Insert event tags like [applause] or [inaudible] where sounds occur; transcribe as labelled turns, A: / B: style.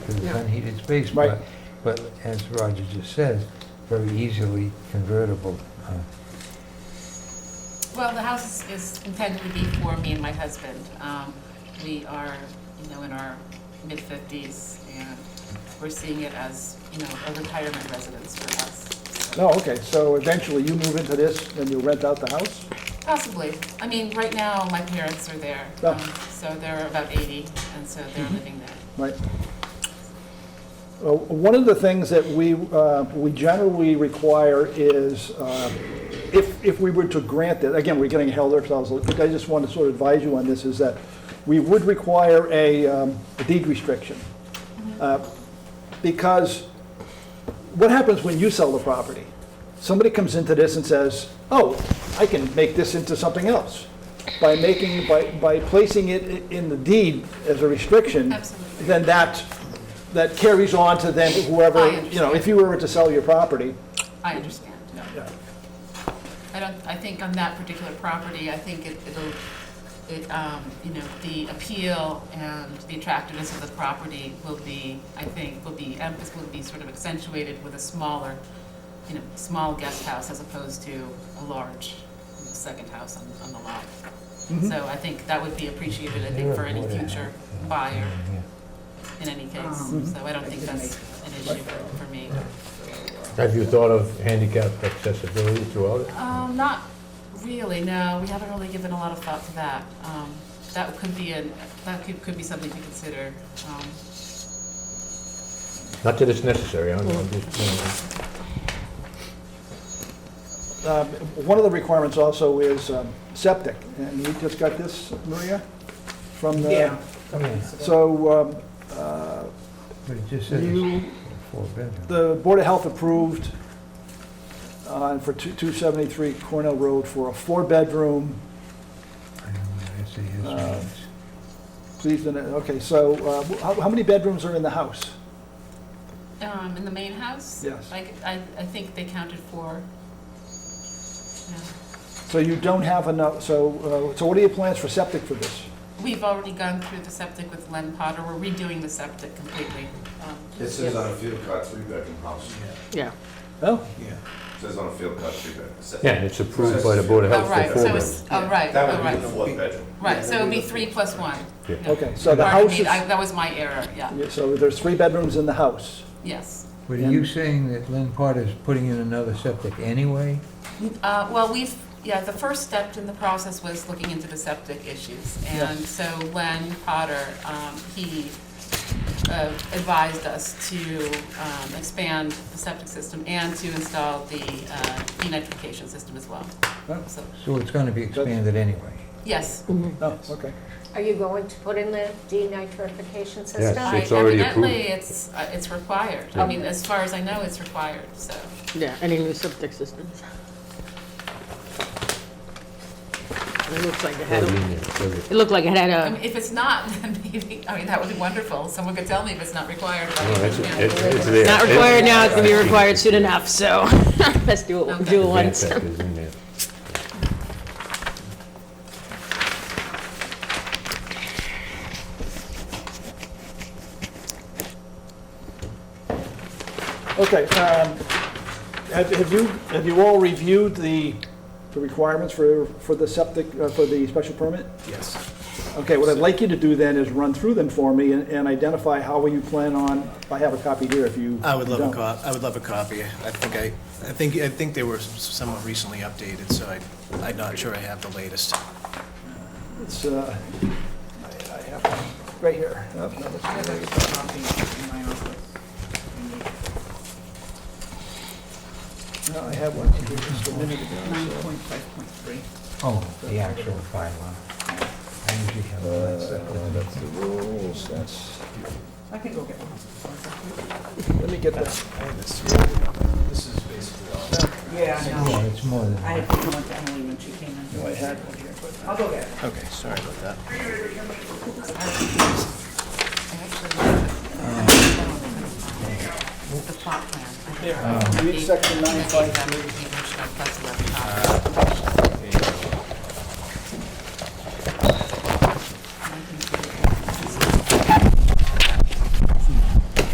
A: Yeah.
B: unheated space,
C: Right.
B: but, but as Roger just says, very easily convertible. uh,
A: Well, the house is is intended to be for me and my husband. Um, We are, you know, in our mid-fifties, and we're seeing it as, you know, a retirement residence for us. so-
C: No, okay, so eventually you move into this, then you rent out the house?
A: Possibly. I mean, right now, my parents are there,
C: Yeah.
A: um, so they're about eighty, and so they're living there.
C: Right. Uh, One of the things that we, uh, we generally require is, uh, if, if we were to grant it, again, we're getting held ourselves, but I just want to sort of advise you on this, is that we would require a um, a deed restriction. Uh, Because what happens when you sell the property? Somebody comes into this and says, oh, I can make this into something else. By making, by, by placing it i- in the deed as a restriction.
A: Absolutely.
C: Then that, that carries on to then whoever,
A: I
C: you know, if you were to sell your property.
A: I understand, no.
C: yeah.
A: I don't, I think on that particular property, I think it- it'll, it, um, you know, the appeal and the attractiveness of the property will be, I think, will be, emphasis will be sort of accentuated with a smaller, you know, small guest house as opposed to a large you know, second house on, on the lot. So I think that would be appreciated, I think, for any future buyer
B: yeah.
A: in any case. So I don't think that's an issue for me.
D: Have you thought of handicap accessibility throughout it?
A: Um, not really, no, we haven't really given a lot of thought to that. Um, that could be an, that could, could be something to consider. Um,
D: Not that it's necessary, I don't know, I'm just, you know,
C: Um, One of the requirements also is um, septic, and you just got this, Maria, from the...
E: Yeah.
C: So um, uh,
B: But it just says it's
C: you,
B: four bedroom.
C: the Board of Health approved uh, for two- 273 Cornell Road for a four-bedroom,
B: I don't know, I see his
C: Uh,
B: means.
C: please, and, uh, okay, so uh, how how many bedrooms are in the house?
A: Um, in the main house?
C: Yes.
A: I, c- I- I think they counted four. Yeah.
C: So you don't have enough, so, uh, so what are your plans for septic for this?
A: We've already gone through the septic with Len Potter, we're redoing the septic completely. Um,
F: It says on a field cut three bedroom house.
E: Yeah.
C: Oh,
F: It says on a field cut three bedroom.
D: Yeah, and it's approved by the Board of
A: Oh,
D: Health
A: right,
D: for four
A: so
D: bedrooms.
A: it's, oh, right,
F: That
A: oh,
F: would be the
A: right,
F: fourth bedroom.
A: right, so it'd be three plus one.
D: Yeah.
A: No.
C: okay, so the
A: Pardon
C: house
A: me,
C: is,
A: I- that was my error, yeah,
C: yeah, so there's three bedrooms in the house.
A: yes.
B: But are you saying that Lynn Potter's putting in another septic anyway?
A: Uh, Well, we've, yeah, the first step in the process was looking into the septic issues. And so Len Potter, um, he uh, advised us to um, expand the septic system and to install the uh, denitrification system as well.
C: Huh?
A: So,
B: So it's gonna be expanded anyway.
A: yes.
C: Oh, okay.
G: Are you going to put in the denitrification system?
D: Yes.
A: I-
D: it's already
A: Evidently, it's, uh, it's required. I mean, as far as I know, it's required, so.
E: Yeah, any new septic systems. It looks like it had,
D: Every
E: a-
D: unit, every-
E: it looked like it had
A: I mean,
E: a,
A: if it's not, [laughs] then maybe, I mean, that would be wonderful. Someone could tell me if it's not required. but I
D: no, it's-
A: mean, yeah.
D: it's- it's there.
E: not required now, it's gonna be required soon enough, so [laughs] let's do it, do it once.
D: Handicap is in there.
C: Okay, um, have have you, have you all reviewed the the requirements for, for the septic, uh, for the special permit?
H: Yes.
C: Okay, what I'd like you to do then is run through them for me and- and identify how you plan on, I have a copy here if you.
H: I would love
C: don't.
H: a cop, I would love a copy. I think I, I think, I think they were somewhat recently updated, so I, I'm not sure I have the latest.
C: It's, uh, I I have, one right here. Oh, no, that's-
I: I have a copy in my office.
C: No, I have one here just a minute
I: Nine
C: ago.
I: point five point three.
B: Oh, the actual bylaw. I usually have all
D: Uh,
B: that stuff.
C: That's the rules, that's,
I: I can go get one.
C: let me get that.
H: This is basically all.
I: Yeah, I
B: Oh,
I: know.
B: It's more than.
I: I had to come with Emily when she came in. I had one here. I'll go get it.
H: Okay, sorry about that.
A: The plot plan. There.
C: Read section nine, five,
A: That's eleven.